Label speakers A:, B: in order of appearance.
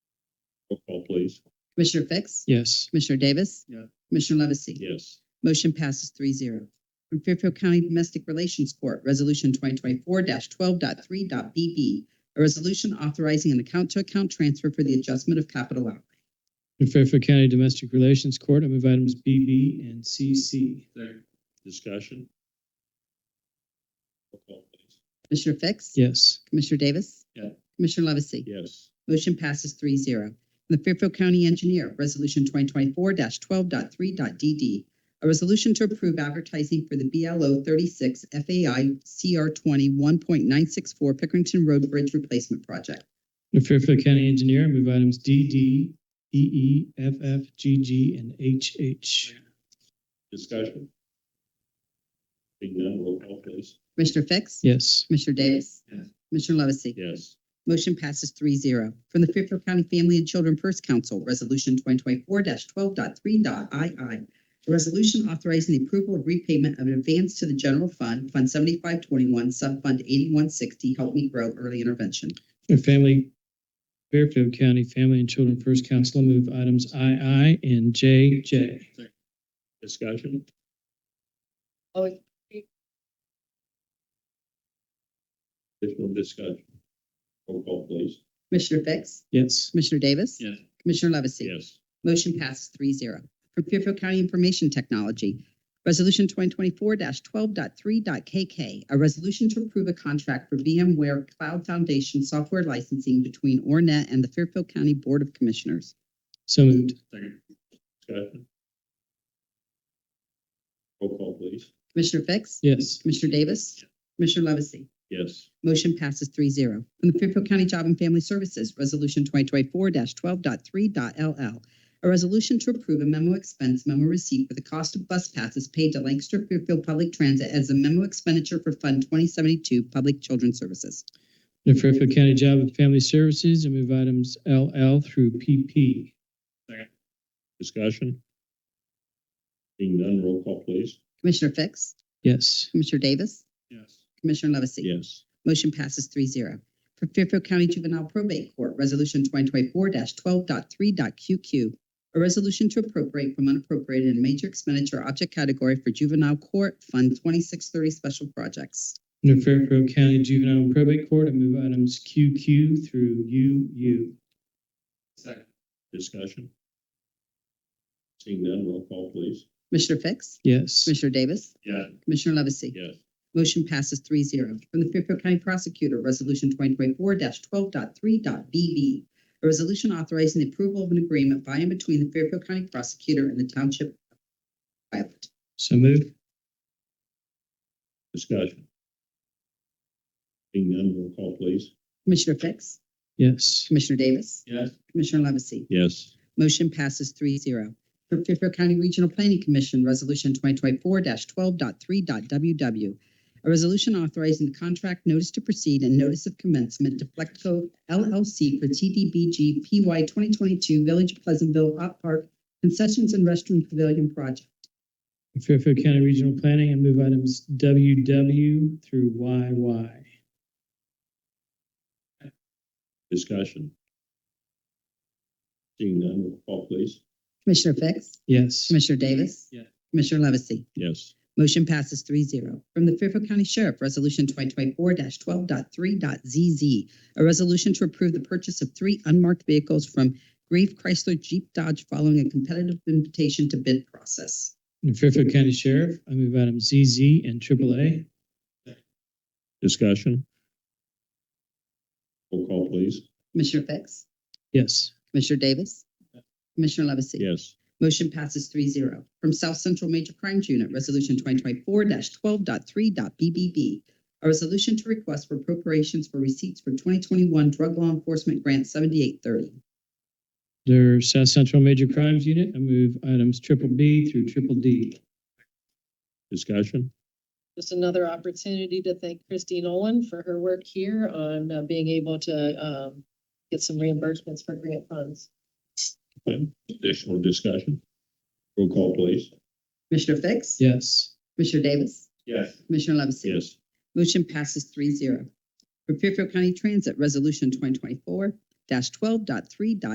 A: please.
B: Commissioner Fix?
C: Yes.
B: Commissioner Davis?
C: Yeah.
B: Commissioner Levesey?
A: Yes.
B: Motion passes three zero. From Fairfield County Domestic Relations Court, Resolution twenty twenty-four 123bb a resolution authorizing an account-to-account transfer for the adjustment of capital outlay.
C: In Fairfield County Domestic Relations Court, I move items B, B, and C, C.
A: Discussion? Roll call, please.
B: Commissioner Fix?
C: Yes.
B: Commissioner Davis?
A: Yeah.
B: Commissioner Levesey?
A: Yes.
B: Motion passes three zero. The Fairfield County Engineer, Resolution twenty twenty-four 123dd A resolution to approve advertising for the BLO thirty-six FAI CR twenty one point nine six four Pickerington Road Bridge Replacement Project.
C: Under Fairfield County Engineer, I move items D, D, E, E, F, F, G, G, and H, H.
A: Discussion? Being done, roll call, please.
B: Commissioner Fix?
C: Yes.
B: Commissioner Davis?
A: Yes.
B: Commissioner Levesey?
A: Yes.
B: Motion passes three zero. From the Fairfield County Family and Children First Council, Resolution twenty twenty-four 123ii A resolution authorizing the approval of repayment of an advance to the general fund, Fund seventy-five twenty-one, Subfund eighty-one sixty, Help Me Grow Early Intervention.
C: Under Family, Fairfield County Family and Children First Council, I move items I, I, and J, J.
A: Discussion? Additional discussion? Roll call, please.
B: Commissioner Fix?
C: Yes.
B: Commissioner Davis?
A: Yes.
B: Commissioner Levesey?
A: Yes.
B: Motion passes three zero. From Fairfield County Information Technology, Resolution twenty twenty-four 123kk a resolution to approve a contract for VMware Cloud Foundation software licensing between Ornet and the Fairfield County Board of Commissioners.
C: So moved.
A: Discussion? Roll call, please.
B: Commissioner Fix?
C: Yes.
B: Commissioner Davis? Commissioner Levesey?
A: Yes.
B: Motion passes three zero. From the Fairfield County Job and Family Services, Resolution twenty twenty-four 123ll A resolution to approve a memo expense memo receipt for the cost of bus passes paid to Lancaster Fairfield Public Transit as a memo expenditure for Fund twenty seventy-two Public Children's Services.
C: Under Fairfield County Job and Family Services, I move items L, L through P, P.
A: Discussion? Being done, roll call, please.
B: Commissioner Fix?
C: Yes.
B: Commissioner Davis?
A: Yes.
B: Commissioner Levesey?
A: Yes.
B: Motion passes three zero. For Fairfield County Juvenile Probate Court, Resolution twenty twenty-four 123qq A resolution to appropriate from unappropriated in major expenditure object category for juvenile court fund twenty-six thirty special projects.
C: Under Fairfield County Juvenile and Probate Court, I move items Q, Q through U, U.
A: Second. Discussion? Seeing none, roll call, please.
B: Commissioner Fix?
C: Yes.
B: Commissioner Davis?
A: Yes.
B: Commissioner Levesey?
A: Yes.
B: Motion passes three zero. From the Fairfield County Prosecutor, Resolution twenty twenty-four 123bb A resolution authorizing the approval of an agreement by and between the Fairfield County Prosecutor and the Township of Violet.
C: So moved.
A: Discussion? Seeing none, roll call, please.
B: Commissioner Fix?
C: Yes.
B: Commissioner Davis?
A: Yes.
B: Commissioner Levesey?
A: Yes.
B: Motion passes three zero. For Fairfield County Regional Planning Commission, Resolution twenty twenty-four 123ww A resolution authorizing the contract notice to proceed and notice of commencement to Flexco LLC for TDBG PY twenty twenty-two Village of Pleasantville Hot Park Concessions and Restroom Pavilion Project.
C: Fairfield County Regional Planning, I move items W, W through Y, Y.
A: Discussion? Seeing none, roll call, please.
B: Commissioner Fix?
C: Yes.
B: Commissioner Davis?
C: Yes.
B: Commissioner Levesey?
A: Yes.
B: Motion passes three zero. From the Fairfield County Sheriff, Resolution twenty twenty-four 123zz A resolution to approve the purchase of three unmarked vehicles from Grave Chrysler Jeep Dodge following a competitive invitation to bid process.
C: Under Fairfield County Sheriff, I move items Z, Z, and triple A.
A: Discussion? Roll call, please.
B: Commissioner Fix?
C: Yes.
B: Commissioner Davis? Commissioner Levesey?
A: Yes.
B: Motion passes three zero. From South Central Major Crimes Unit, Resolution twenty twenty-four 123bb A resolution to request for appropriations for receipts for twenty twenty-one Drug Law Enforcement Grant seventy-eight thirty.
C: Under South Central Major Crimes Unit, I move items triple B through triple D.
A: Discussion?
D: Just another opportunity to thank Christy Nolan for her work here on uh, being able to um, get some reimbursements for grant funds.
A: Additional discussion? Roll call, please.
B: Commissioner Fix?
C: Yes.
B: Commissioner Davis?
A: Yes.
B: Commissioner Levesey?
A: Yes.
B: Motion passes three zero. For Fairfield County Transit, Resolution twenty twenty-four 123